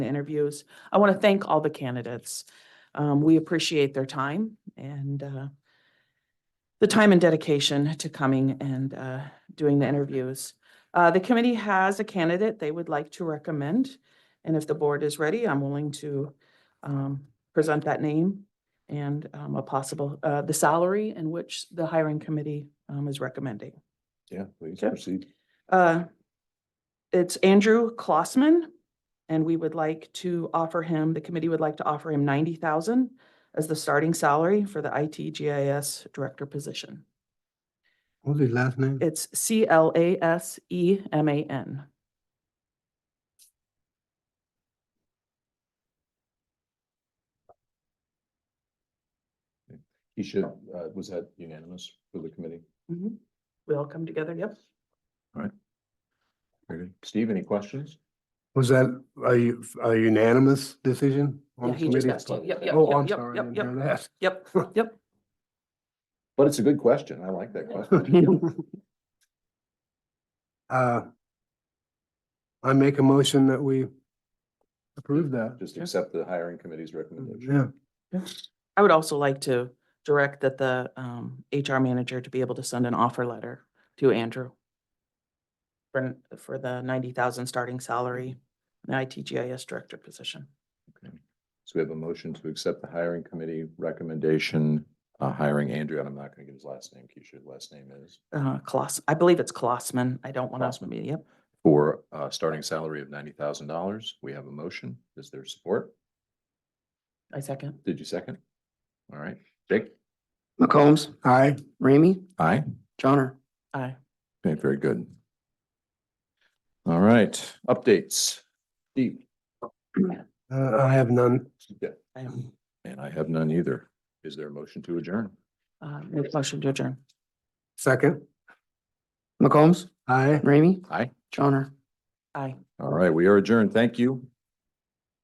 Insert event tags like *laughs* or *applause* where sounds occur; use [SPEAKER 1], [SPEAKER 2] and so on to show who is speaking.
[SPEAKER 1] the interviews. I want to thank all the candidates. Um, we appreciate their time and, uh, the time and dedication to coming and, uh, doing the interviews. Uh, the committee has a candidate they would like to recommend. And if the board is ready, I'm willing to, um, present that name and, um, a possible, uh, the salary in which the hiring committee, um, is recommending.
[SPEAKER 2] Yeah, please
[SPEAKER 1] Okay.
[SPEAKER 2] proceed.
[SPEAKER 1] Uh, It's Andrew Klossman, and we would like to offer him, the committee would like to offer him ninety thousand as the starting salary for the IT GIS director position.
[SPEAKER 3] What's his last name?
[SPEAKER 1] It's C L A S E M A N.
[SPEAKER 2] He should, uh, was that unanimous for the committee?
[SPEAKER 1] Mm-hmm. We all come together, yep.
[SPEAKER 2] Very good. Steve, any questions?
[SPEAKER 3] Was that a u- a unanimous decision on
[SPEAKER 1] Yeah,
[SPEAKER 3] the
[SPEAKER 1] he just
[SPEAKER 3] committee?
[SPEAKER 1] asked you. Yep, yep,
[SPEAKER 3] Oh, I'm
[SPEAKER 1] yep,
[SPEAKER 3] sorry, I
[SPEAKER 1] yep,
[SPEAKER 3] didn't
[SPEAKER 1] yep,
[SPEAKER 3] hear that.
[SPEAKER 1] yep, yep.
[SPEAKER 2] But it's a good question. I like that
[SPEAKER 3] *laughs*
[SPEAKER 2] question.
[SPEAKER 3] Uh, I make a motion that we approve that.
[SPEAKER 2] Just accept the hiring committee's recommendation.
[SPEAKER 3] Yeah,
[SPEAKER 1] I would also like to direct that the um, HR manager to be able to send an offer letter to Andrew for, for the ninety thousand starting salary, the IT GIS director position.
[SPEAKER 2] So we have a motion to accept the hiring committee recommendation, uh, hiring Andrew, and I'm not gonna get his last name, Keisha, his last name is,
[SPEAKER 1] Uh, Coloss, I believe it's Colossman. I don't want to,
[SPEAKER 2] Klossman.
[SPEAKER 1] be yep.
[SPEAKER 2] for a starting salary of ninety thousand dollars. We have a motion. Is there support?
[SPEAKER 1] I second.
[SPEAKER 2] Did you second? All right, Jake?
[SPEAKER 4] McCombs,
[SPEAKER 3] aye,
[SPEAKER 4] Ramey,
[SPEAKER 2] Aye.
[SPEAKER 4] Johnner.
[SPEAKER 1] Aye.
[SPEAKER 2] Okay, very good. All right, updates. Steve?
[SPEAKER 3] Uh, I have none.
[SPEAKER 1] I am,
[SPEAKER 2] And I have none either. Is there a motion to adjourn?
[SPEAKER 1] uh, make motion to adjourn.
[SPEAKER 3] Second,
[SPEAKER 4] McCombs,
[SPEAKER 3] aye.
[SPEAKER 4] Ramey,
[SPEAKER 2] Aye.
[SPEAKER 4] Johnner.
[SPEAKER 1] Aye.
[SPEAKER 2] All right, we are adjourned. Thank you.